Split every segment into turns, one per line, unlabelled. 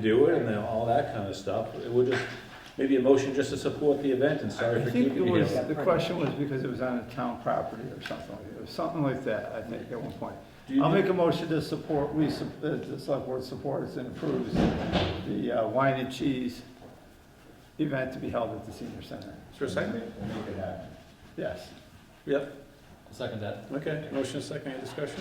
do it and then all that kind of stuff. It would just, maybe a motion just to support the event and sorry
I
for
think
keeping
it
you
was,
here.
the question was because it was on a town property or something, like- it was something like that, I think, at one point.
Do you
I'll
need-
make a motion to support, we, sup- uh, the select board supports and approves the uh, wine and cheese event to be held at the senior center.
Is there a second?
We'll make it happen.
Yes.
Yep,
Second that.
okay. Motion is second, any discussion?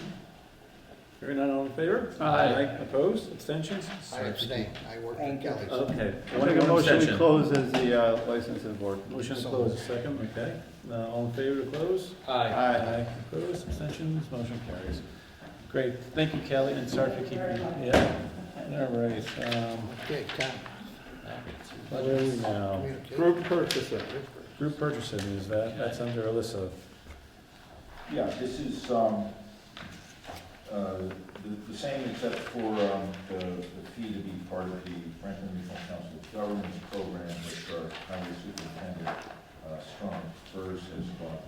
Hearing none, all in favor?
Aye.
Opposed, abstentions?
I abstain, I work for Kelly's.
Okay.
I'll
One
make a motion to
abstention.
close as the uh, licensing board.
Motion to close, second, okay. Uh, All in favor to close?
Aye.
Aye.
Opposed, abstentions, motion carries. Great, thank you Kelly, and sorry for keeping you. Yeah, all right. um,
Okay, Tom,
Where are we now?
communicate.
Group purchasing.
Group purchasing, is that, that's under Alyssa.
Yeah, this is, um, uh, the, the same except for, um, the, the fee to be part of the Franklin Regional Council of Governments program, which our county superintendent, uh, Strong Spurs has gone on,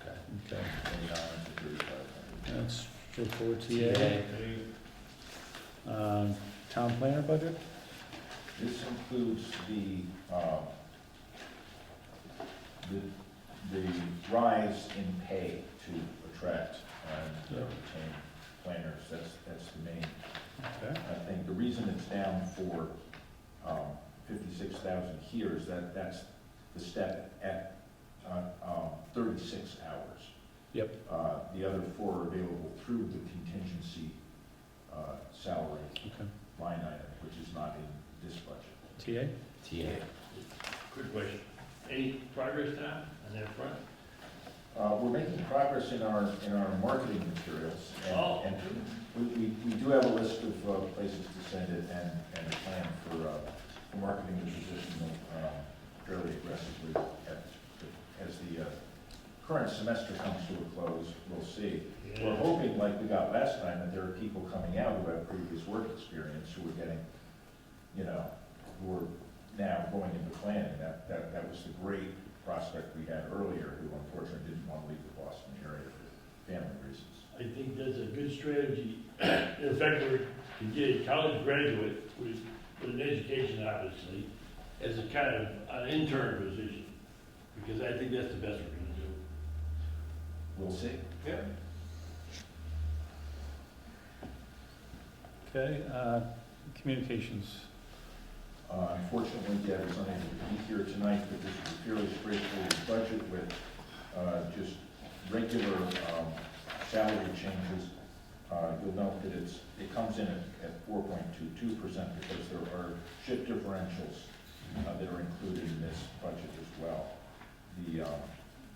Okay,
twenty-nine to thirty-five hundred.
that's for four TA. Um, Town planner budget?
This includes the, um, the, the rise in pay to attract and retain planners, that's, that's the main
Okay.
I think the reason it's down for um, 56,000 here is that that's the step at uh, um, 36 hours.
Yep.
Uh, The other four are available through the contingency uh, salary
Okay.
line item, which is not in this budget.
TA?
TA.
Quick question. Any progress now on that front?
Uh, We're making progress in our, in our marketing materials. and-
Oh.
and We, we we do have a list of uh, places to send it and, and a plan for, uh, for marketing the position um, fairly aggressively at, as the, uh, current semester comes to a close, we'll see. We're
Yeah.
hoping, like we got last time, that there are people coming out who have previous work experience who are getting, you know, who are now going into planning. That, that, that was the great prospect we had earlier, who unfortunately didn't want to leave the Boston area for family reasons.
I think that's a good strategy. In fact, we're, to get a college graduate with, with an education, obviously, as a kind of an intern position, because I think that's the best we're gonna do.
We'll see.
Yeah.
Okay, uh, communications.
Uh, Unfortunately, Deb is unable to be here tonight, but this is a fairly straightforward budget with uh, just regular um, salary changes. Uh, You'll note that it's, it comes in at 4.22% because there are shift differentials uh, that are included in this budget as well. The, um,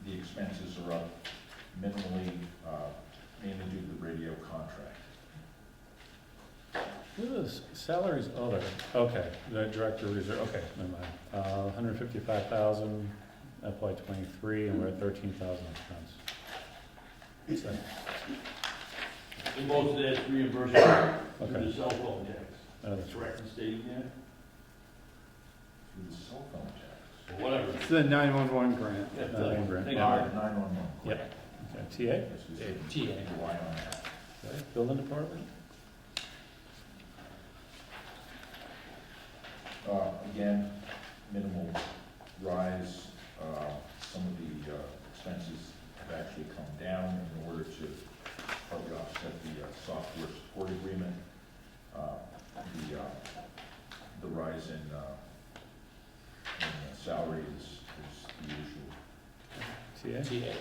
the expenses are up minimally, uh, mainly due to the radio contract.
What is salaries other? Okay, the director reserve, okay, never mind. Uh, hundred fifty-five thousand FY twenty-three, and we're at thirteen thousand expense. What's that?
And most of that's reimbursable through
Okay,
the cell phone tax.
uh,
That's right, in stating that,
Through the cell phone tax.
or whatever.
It's the 911 grant.
That's,
Not
uh,
in grant.
thank you.
Uh, 911.
Yep. okay,
Yes, we
Yeah,
should
TA.
rely on that.
TA, okay, building department?
Uh, Again, minimal rise. Uh, Some of the uh, expenses have actually come down in order to partly offset the uh, software support agreement. Uh, The, uh, the rise in, uh, in uh, salary is, is the usual.
TA,
TA.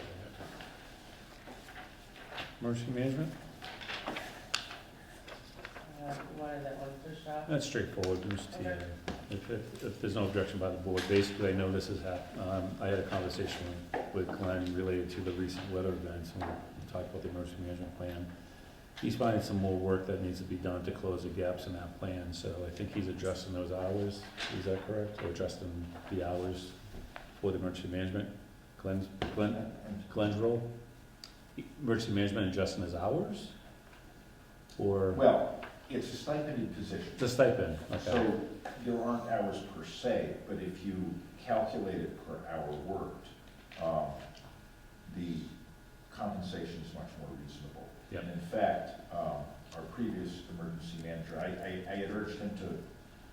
emergency management?
Uh, One of that one push off.
That's straightforward, Bruce, to you. If, if, if there's no objection by the board, basically, I know this has happened, um, I had a conversation with Glenn related to the recent weather events, and we talked about the emergency management plan. He's finding some more work that needs to be done to close the gaps in that plan, so I think he's addressing those hours, is that correct? Or addressing the hours for the emergency management, Glenn's, Glenn,
And
Glenn's role? Emergency management adjusting his hours? Or
Well, it's a stipended position.
the stipend, okay,
So there aren't hours per se, but if you calculate it per hour worked, um, the compensation is much more reasonable.
Yep.
And in fact, um, our previous emergency manager, I, I, I had urged him to